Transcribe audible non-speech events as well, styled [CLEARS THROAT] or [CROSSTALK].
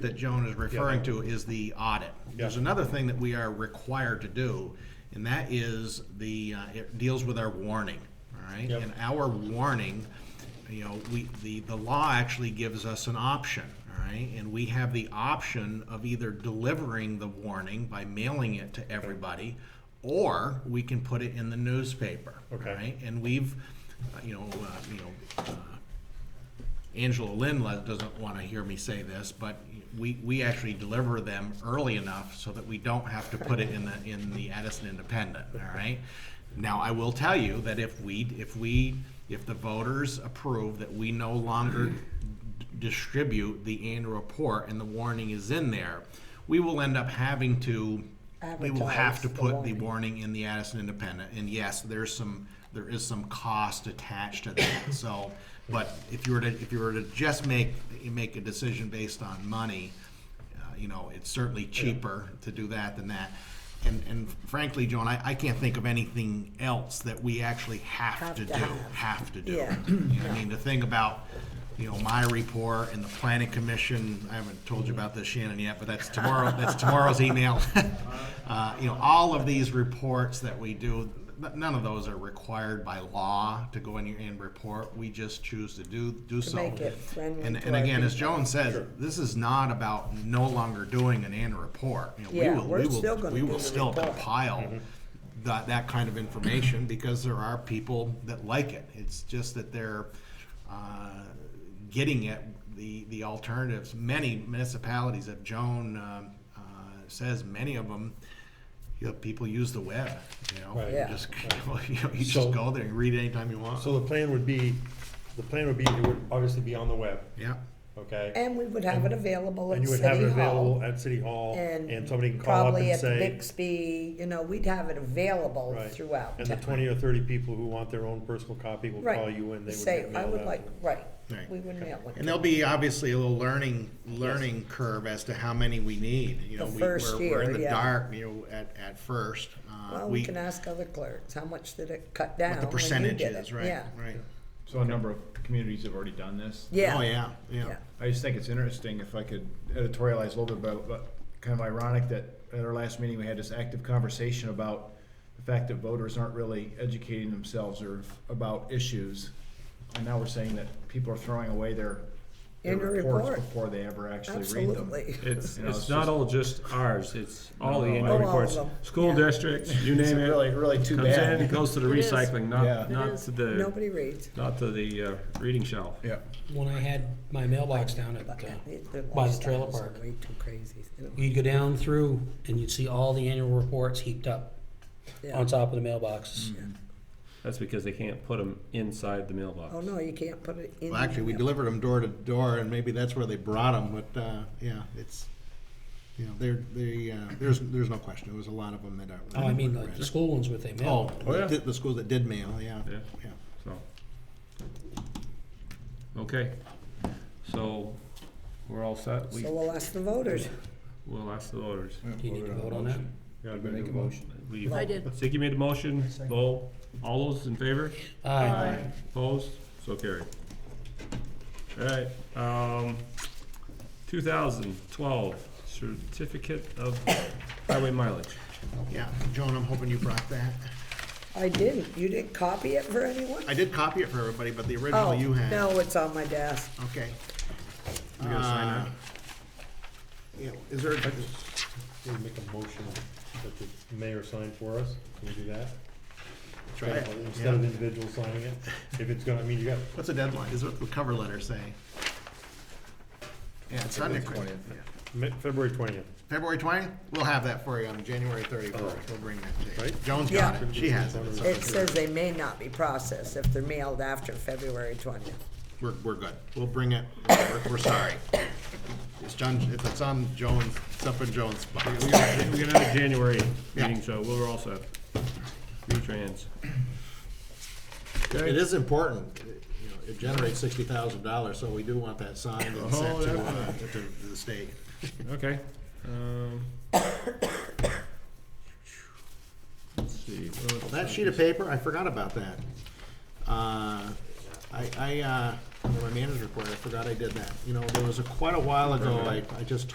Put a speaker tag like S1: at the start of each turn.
S1: that Joan is referring to is the audit. There's
S2: Yeah.
S1: another thing that we are required to do, and that is the, uh, it deals with our warning, all right?
S2: Yep.
S1: And our warning, you know, we, the, the law actually gives us an option, all right? And we have the option of either delivering the warning by mailing it to everybody, or we can put it in the newspaper.
S2: Okay.
S1: all right? And we've, uh, you know, uh, you know, uh, Angela Lynn le- doesn't want to hear me say this, but we, we actually deliver them early enough so that we don't have to put it in the, in the Addison Independent, all right? Now, I will tell you that if we, if we, if the voters approve that we no longer d- distribute the annual report and the warning is in there, we will end up having to, we will have
S3: Advertise
S1: to
S3: the
S1: put the
S3: warning.
S1: warning in the Addison Independent, and yes, there's some, there is some cost attached to that, so, but if you were to, if you were to just make, make a decision based on money, uh, you know, it's certainly cheaper to do that than that. And, and frankly, Joan, I, I can't think of anything else that we actually have
S3: Have
S1: to
S3: to
S1: do,
S3: have.
S1: have to do.
S3: Yeah.
S1: [CLEARS THROAT] You know, I mean, the thing about, you know, my report and the planning commission, I haven't told you about this, Shannon, yet, but that's tomorrow, that's tomorrow's email. [LAUGHS] Uh, You know, all of these reports that we do, n- none of those are required by law to go in your end report. We just choose to do, do so.
S3: make it friendly
S1: And,
S3: to
S1: and
S3: our
S1: again, as Joan says, this is not about no longer doing an annual report. You know, we
S3: Yeah,
S1: will-
S3: we're
S1: we will-
S3: still gonna
S1: We
S3: do
S1: will
S3: the
S1: still
S3: report. Mm-hmm.
S1: compile that, that kind of information, [CLEARS THROAT] because there are people that like it. It's just that they're, uh, getting it, the, the alternatives. Many municipalities, if Joan, um, uh, says, many of them, you know, people use the web, you know?
S2: Right.
S1: You
S3: Yeah.
S1: just, [LAUGHS] you know, you
S2: So-
S1: just go there and read anytime you want.
S2: So the plan would be, the plan would be, it would obviously be on the web,
S1: Yeah,
S2: okay?
S3: And we would have it available
S2: And
S3: at
S2: you would have it
S3: City
S2: available
S3: Hall.
S2: at City Hall, and
S3: And
S2: somebody can call up and
S3: probably at the
S2: say.
S3: Bixby, you know, we'd have it available
S2: right.
S3: throughout
S2: And the
S3: town.
S2: twenty or thirty people who want their own personal copy will
S3: Right.
S2: call you and they would
S3: Say,
S2: get
S3: I
S2: mailed
S3: would
S2: out.
S3: like, right,
S1: Right.
S3: we would mail
S1: and
S3: it.
S1: there'll be obviously a little learning, learning curve as to how many we need, you know?
S3: The
S1: we-
S3: first
S1: we're- We're in
S3: year,
S1: the
S3: yeah.
S1: dark, you know, at, at first. Uh,
S3: Well, we can ask other clerks, how much did it cut down
S1: What the
S3: when you did
S1: percentages,
S3: it?
S1: right,
S3: Yeah,
S1: right.
S4: So a number of communities have already done this.
S3: yeah.
S1: Oh, yeah, yeah.
S3: Yeah.
S4: I just think it's interesting if I could editorialize a little bit about, but kind of ironic that at our last meeting, we had this active conversation about the fact that voters aren't really educating themselves or about issues. And now we're saying that people are throwing away their, their
S3: Annual
S4: reports
S3: report.
S4: before they ever actually read them.
S3: Absolutely. [LAUGHS]
S5: It's,
S4: You know, it's
S5: it's not
S4: just-
S5: all just ours, it's all the
S4: No,
S5: annual
S4: all
S3: of
S5: reports,
S3: them.
S5: school
S3: Yeah.
S5: districts, you
S4: It's
S5: name it.
S4: really, really too
S5: Comes in, it
S4: bad.
S5: goes to the
S6: It is.
S5: recycling,
S4: Yeah.
S5: not,
S6: It
S5: not
S6: is.
S5: to the,
S3: Nobody reads.
S5: not to the uh, reading shelf.
S4: Yeah.
S7: when I had my mailbox down at,
S3: But
S7: uh,
S3: their
S7: by the trailer
S3: lifestyles are
S7: park,
S3: Way too crazy. you know,
S7: you'd go down through and you'd see all the annual reports heaped up
S3: yeah.
S7: on top of the mailboxes.
S5: That's because they can't put them inside the mailbox.
S3: Oh, no, you can't put it in.
S1: Well, actually, we
S3: there.
S1: delivered them door to door, and maybe that's where they brought them. But uh, yeah, it's you know, they're they uh, there's there's no question. There was a lot of them that are.
S7: Oh, I mean, like the school ones with they
S1: oh,
S7: mail.
S5: Oh, yeah.
S1: the, the schools that did mail, yeah,
S5: Yeah.
S1: yeah.
S5: So. Okay, so we're all set, we,
S3: So we'll ask the voters.
S5: we'll ask the voters.
S7: Do you need to vote on that?
S5: Yeah,
S4: Make a motion.
S5: we-
S6: I did.
S5: Ziggy made the motion, Bo, all those in favor?
S7: Aye.
S5: Opposed? So carried. Alright, um, two thousand twelve, certificate of highway mileage.
S1: Yeah, Joan, I'm hoping you brought that.
S3: I didn't. You didn't copy it for anyone?
S1: I did copy it for everybody, but the original
S3: Oh,
S1: you had.
S3: no, it's on my desk.
S1: Okay.
S5: You gotta sign
S1: Uh, Yeah, is there? a-
S2: We'll make a motion that the mayor sign for us, can we do that?
S1: Try it,
S2: Instead of
S1: yeah.
S2: individuals signing it, if it's gonna, I mean, you got,
S1: What's the deadline? Is what the cover letter say? Yeah, it's on the
S2: Mi- February twentieth,
S1: February twentieth, we'll have that for you on January thirty-first, we'll bring that to you.
S2: Right.
S1: Joan's got
S3: Yeah.
S1: it, she has it, so
S3: It says they may not be processed if they're mailed after February twentieth.
S1: we're, we're good, we'll bring it, we're, we're sorry. It's John, if it's on Joan's, it's up in Joan's spot.
S5: We got we got another January
S1: Yeah.
S5: meeting, so we're all set. Retrans.
S1: It is important, it- you know, it generates sixty thousand dollars, so we do want that signed and sent
S5: Oh,
S1: to,
S5: yeah.
S1: uh, to to the state.
S5: Okay, um. Let's see. what else
S1: That
S5: is
S1: sheet of paper, I forgot about that. Uh, I, I, uh, under my manager's report, I forgot I did that, you know, there was a, quite a while ago, I, I just